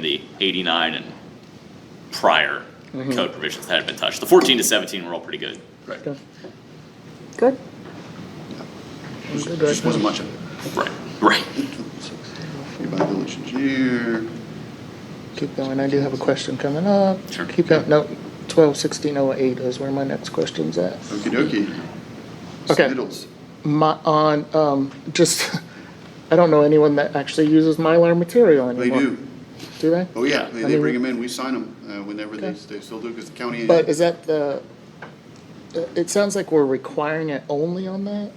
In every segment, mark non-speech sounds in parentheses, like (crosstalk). the 89 and prior Mm-hmm. code provisions that had been touched. The 14 to 17 were all pretty good. Right. Good. Just wasn't much of it. Right. Right. Evaluation here. Keep going, I do have a question coming up. Sure. Keep going, no, twelve sixteen oh eight is where my next question's at. Okey dokey. Okay. Sniddles. My, on, um, just, (laughs) I don't know anyone that actually uses Mylar material They anymore. do. Do they? Oh, yeah. They, I they mean- bring them in. We sign them, uh, whenever they, Okay. they still do, because the county. But is that the, it sounds like we're requiring it only on that?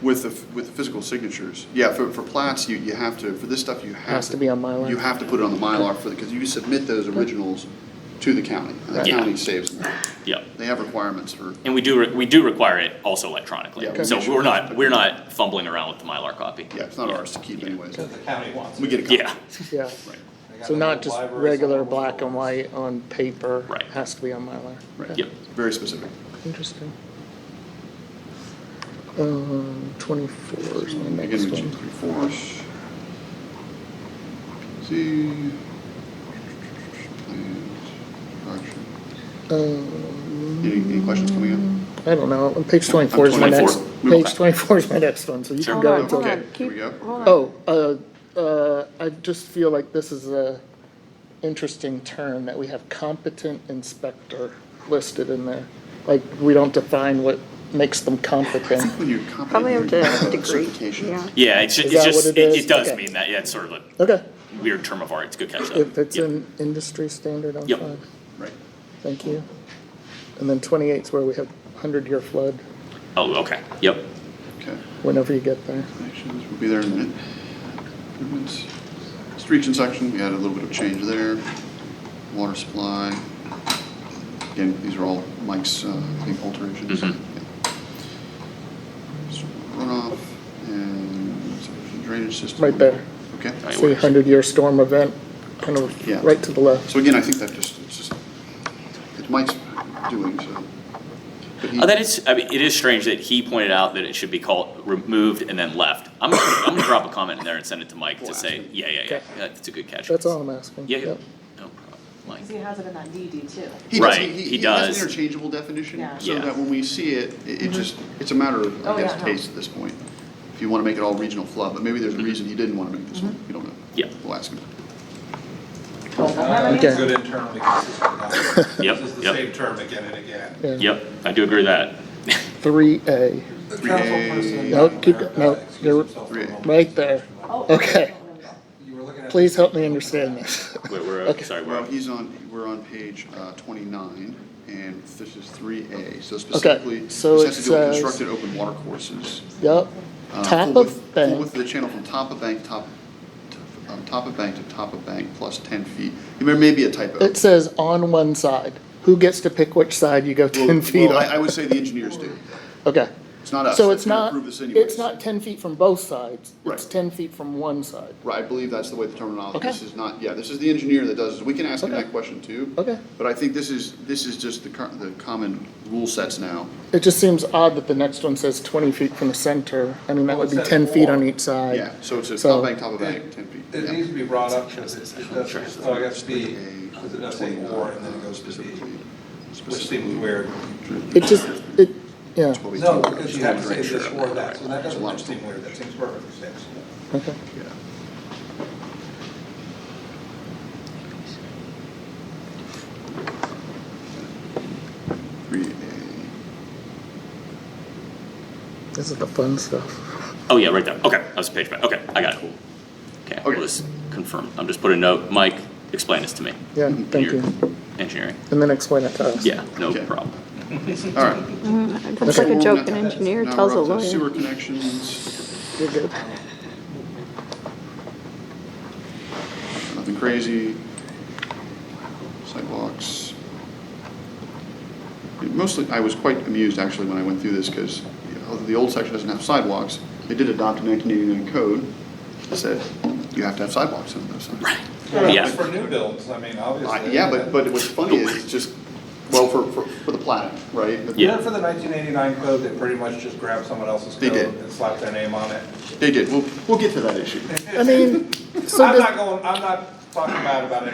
With the, f- with the physical signatures. Yeah, for, for plats, you, you have to, for this stuff, you have. Has to be on Mylar. You have to put it on the Mylar for the, because you submit those originals to the county. and The Yeah. county saves them. Yep. They have requirements for, And we do, re- we do require it also electronically. Yeah, So we should. we're not, we're not fumbling around with the Mylar copy. yeah, it's not ours to keep anyways. The county wants We it. get a copy. Yeah, Yeah, Right, They got so a not little just library, regular something. black and white on paper. Right. Has to be on Mylar. right. Yep. Very specific. Interesting. Um, twenty-four is my next Again, we one. choose three fourths. See. And action. Any, any questions coming up? I don't know, on page twenty-four is my next, 24. Move page back. twenty-four is my next one, so you Sure. can Hold go on, Okay, until. hold on. here we Keep- go. Hold on. Oh, uh, uh, I just feel like this is a interesting term that we have competent inspector listed in there. Like, we don't define what makes them (laughs) competent. When you're Probably have competent, to you're have a uh, degree, yeah. certifications. yeah, it's, ju- Is it's that just, what it it is? it does Okay. mean that, yeah, it's sort of a Okay, weird term of art, it's a good catch up. if it's Yep. an industry standard, I'm Yep. fine, Right. thank you. And then twenty-eight's where we have hundred-year flood, Oh, okay, yep, Okay. whenever you get there. Actions, we'll be there in a minute. Improvements. Streets and section, we had a little bit of change there. Water supply. Again, these are all Mike's, uh, I think, alterations. Mhm. Yeah. So Runoff and subdivision drainage system. Right there. Okay. Right. See, hundred-year storm event, kind Yeah. of right to the left. So again, I think that just, it's just, it's Mike's doing, so. but he- Uh, That is, I mean, it is strange that he pointed out that it should be called removed and then left. I'm gonna, I'm gonna drop a comment in there and send it to Mike We'll to ask say, him. yeah, yeah, yeah, Okay. that's a good catch. That's all I'm asking. Yeah, yeah, Yep. no problem, Mike. Because he has it in that DD too. He does, Right, he he, he has does. an interchangeable definition, Yeah. so Yeah. that when we see it, it, Mm-hmm. it just, it's a matter of, Oh, I guess, yeah, no. taste at this point. If you wanna make it all regional flub, but maybe there's a reason he didn't wanna make this one, Mm-hmm. we don't know. Mm-hmm. Yeah. We'll ask him. Uh, Okay. Good internally (laughs) consistent. guy. Yep, This is the yep. same term again and again. Yeah. Yep, I do agree with that. Three A, The Three councilperson- A- No, keep go- no, Excuse you're- himself for a moment. right there. Oh, Okay. You were looking at- Please help me understand this. (laughs) We're, we're, Okay. sorry, Well, we're, he's on, we're on page, uh, twenty-nine, and this is three A, so specifically, Okay, this so has it to do with says- constructed open water courses. Yep, Uh, top full width- of Full width of bank, the channel from top of bank, top, to- um, top of bank to top of bank plus ten feet. There may be a typo. it says on one side. Who gets to pick which side you go ten Well, feet well, I, I on? would say the engineers do. Okay. It's not us. So that's it's gonna not, approve this anyways. it's not ten feet from both sides. Right. It's ten feet from one side. Right, I believe that's the way the terminology, Okay. this is not, yeah, this is the engineer that does, this. we can ask him Okay. that question too. Okay. But I think this is, this is just the, cur- the common rule sets now. It just seems odd that the next one says twenty feet from the center. I mean, that Well, would Oh, be it says ten feet four. on each side. Yeah, so it's a So- top bank, top of bank, ten feet. It yeah. needs to be brought up because it's, it does, so I guess B, because it does say or, and then it goes to B, which seems weird. It just, it, yeah, What we do. No, because Just you have to wanted say make this sure. or that, so that There's a lot doesn't of seem weird, that seems perfect for six. okay. Yeah. Three A. This is the fun stuff. oh yeah, right there, okay, that was a page back, okay, I got it. Okay, Okay. we'll just confirm, I'm just putting a note, Mike, explain this to me. Yeah, thank You're you. Engineering, And then explain it to us. Mm-hmm. yeah, no Okay. problem. All right. That's like a joke an engineer Now tells a we're up to lawyer. Sewer connections, You're good. nothing crazy. Sidewalks. Mostly, I was quite amused actually when I went through this because the old section doesn't have sidewalks. They did adopt a 1989 code that said you have to have sidewalks on those sides. Right. Yeah. For new builds, I mean, obviously. Yeah, but, but what's funny is it's just, well, for, for, for the planet, right? But Yeah. Except for the nineteen eighty-nine code, they pretty much just grabbed someone else's They code did. and slapped their name on it. They did, we'll, we'll get to that issue. I mean, so I'm does. not going, I'm not talking about, about